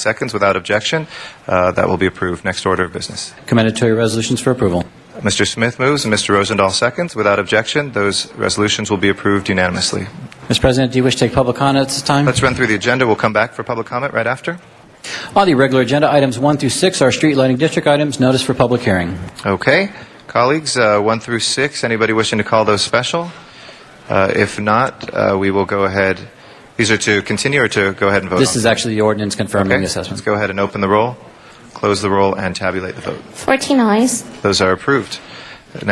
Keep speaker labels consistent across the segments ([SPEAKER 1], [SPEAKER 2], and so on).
[SPEAKER 1] seconds without objection. Uh, That will be approved. Next order of business.
[SPEAKER 2] Commendatory resolutions for approval.
[SPEAKER 1] Mr. Smith moves and Mr. Rosendahl seconds. Without objection, those resolutions will be approved unanimously.
[SPEAKER 2] Mr. President, do you wish to take public comment at this time?
[SPEAKER 1] Let's run through the agenda. We'll come back for public comment right after.
[SPEAKER 2] On the regular agenda, items 1 through 6 are street lighting district items, notice for public hearing.
[SPEAKER 1] Okay. Colleagues, uh, 1 through 6, anybody wishing to call those special? Uh, If not, uh, we will go ahead. These are to continue or to go ahead and vote on?
[SPEAKER 2] This is actually the ordinance confirming
[SPEAKER 1] Okay.
[SPEAKER 2] the
[SPEAKER 1] Let's
[SPEAKER 2] assessment.
[SPEAKER 1] go ahead and open the roll, close the roll, and tabulate the vote.
[SPEAKER 3] 14 eyes,
[SPEAKER 1] Those are approved.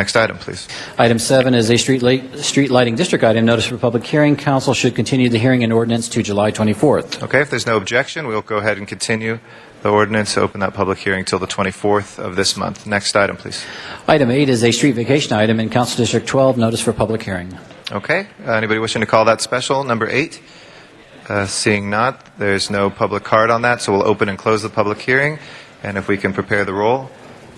[SPEAKER 1] Next item, please.
[SPEAKER 2] Item 7 is a street light, street lighting district item, notice for public hearing. Council should continue the hearing and ordinance to July 24th.
[SPEAKER 1] Okay, if there's no objection, we'll go ahead and continue the ordinance, open that public hearing till the 24th of this month. Next item, please.
[SPEAKER 2] Item 8 is a street vacation item in Council District 12, notice for public hearing.
[SPEAKER 1] Okay, uh, anybody wishing to call that special, number eight? Uh, Seeing not, there's no public card on that, so we'll open and close the public hearing, and if we can prepare the roll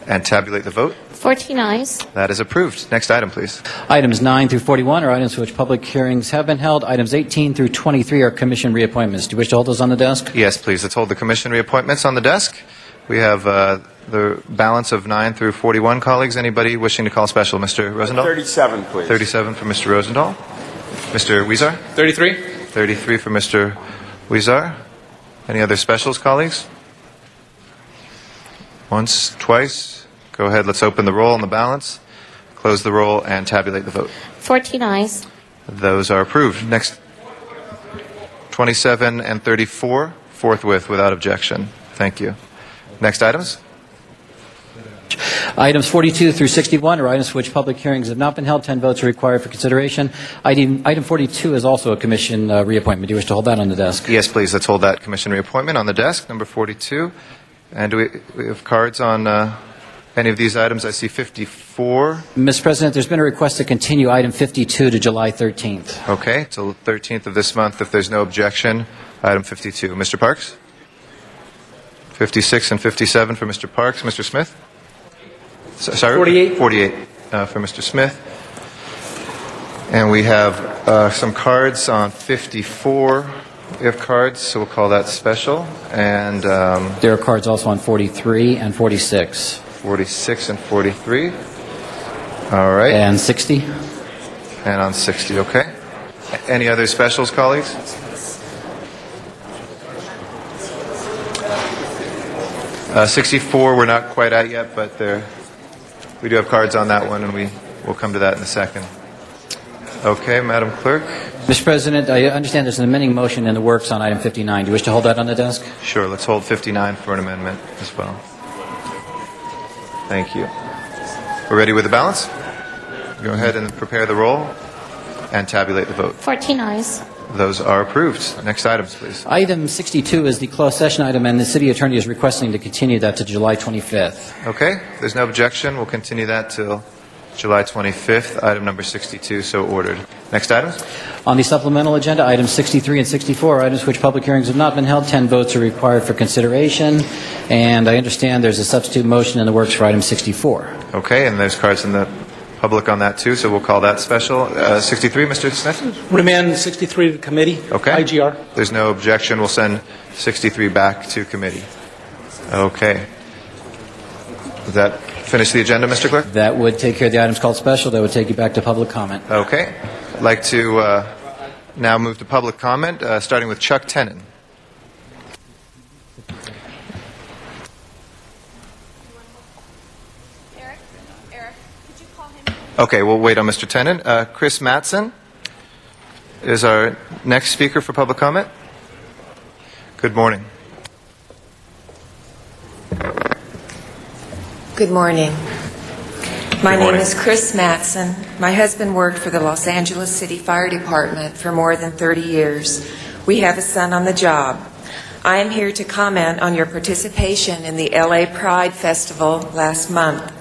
[SPEAKER 1] and tabulate the vote,
[SPEAKER 3] 14 eyes,
[SPEAKER 1] that is approved. Next item, please.
[SPEAKER 2] Items 9 through 41 are items for which public hearings have been held. Items 18 through 23 are commission reappointments. Do you wish to hold those on the desk?
[SPEAKER 1] Yes, please, let's hold the commission reappointments on the desk. We have uh, the balance of nine through 41, colleagues. Anybody wishing to call special? Mr. Rosendahl?
[SPEAKER 4] 37, please.
[SPEAKER 1] 37 for Mr. Rosendahl. Mr. Weezer?
[SPEAKER 5] 33?
[SPEAKER 1] 33 for Mr. Weezer. Any other specials, colleagues? Once, twice. Go ahead, let's open the roll on the balance, close the roll, and tabulate the vote.
[SPEAKER 3] 14 eyes,
[SPEAKER 1] Those are approved. Next, 27 and 34, forthwith, without objection. Thank you. Next items?
[SPEAKER 2] Items 42 through 61 are items for which public hearings have not been held. 10 votes are required for consideration. Item item 42 is also a commission uh, reappointment. Do you wish to hold that on the desk?
[SPEAKER 1] Yes, please, let's hold that commission reappointment on the desk, number 42. And do we, we have cards on uh, any of these items? I see 54.
[SPEAKER 2] Mr. President, there's been a request to continue item 52 to July 13th.
[SPEAKER 1] Okay, till the 13th of this month, if there's no objection, item 52. Mr. Parks? 56 and 57 for Mr. Parks. Mr. Smith? S- Sorry?
[SPEAKER 5] 48.
[SPEAKER 1] 48 uh, for Mr. Smith. And we have uh, some cards on 54. We have cards, so we'll call that special. And um,
[SPEAKER 2] There are cards also on 43 and 46
[SPEAKER 1] 46 and 43. All right.
[SPEAKER 2] and 60.
[SPEAKER 1] And on 60, okay. A- Any other specials, colleagues? Uh, 64, we're not quite at yet, but there, we do have cards on that one, and we will come to that in a second. Okay, Madam Clerk?
[SPEAKER 2] Mr. President, I understand there's an amending motion in the works on item 59. Do you wish to hold that on the desk?
[SPEAKER 1] Sure, let's hold 59 for an amendment as well. Thank you. We're ready with the balance? Go ahead and prepare the roll and tabulate the vote.
[SPEAKER 3] 14 eyes,
[SPEAKER 1] Those are approved. Next items, please.
[SPEAKER 2] Item 62 is the closed session item, and the city attorney is requesting to continue that to July 25th.
[SPEAKER 1] Okay, if there's no objection, we'll continue that till July 25th, item number 62, so ordered. Next items?
[SPEAKER 2] On the supplemental agenda, items 63 and 64 are items which public hearings have not been held. 10 votes are required for consideration, and I understand there's a substitute motion in the works for item 64.
[SPEAKER 1] Okay, and there's cards in the public on that too, so we'll call that special. Uh, 63, Mr. Smith?
[SPEAKER 5] Remand 63 to committee.
[SPEAKER 1] Okay.
[SPEAKER 5] IGR.
[SPEAKER 1] There's no objection, we'll send 63 back to committee. Okay. Does that finish the agenda, Mr. Clerk?
[SPEAKER 2] That would take care of the items called special. That would take you back to public comment.
[SPEAKER 1] Okay. I'd like to uh, now move to public comment, uh, starting with Chuck Tenon.
[SPEAKER 6] Eric, Eric, could you call him?
[SPEAKER 1] Okay, we'll wait on Mr. Tennant. Uh, Chris Matson is our next speaker for public comment. Good morning.
[SPEAKER 7] Good morning. My
[SPEAKER 1] Good
[SPEAKER 7] name
[SPEAKER 1] morning.
[SPEAKER 7] is Chris Matson. My husband worked for the Los Angeles City Fire Department for more than 30 years. We have a son on the job. I am here to comment on your participation in the LA Pride Festival last month.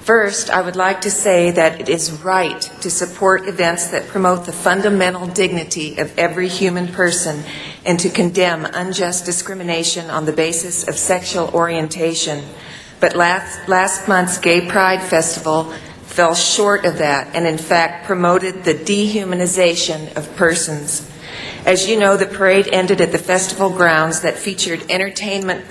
[SPEAKER 7] First, I would like to say that it is right to support events that promote the fundamental dignity of every human person and to condemn unjust discrimination on the basis of sexual orientation. But last, last month's Gay Pride Festival fell short of that and, in fact, promoted the dehumanization of persons. As you know, the parade ended at the festival grounds that featured entertainment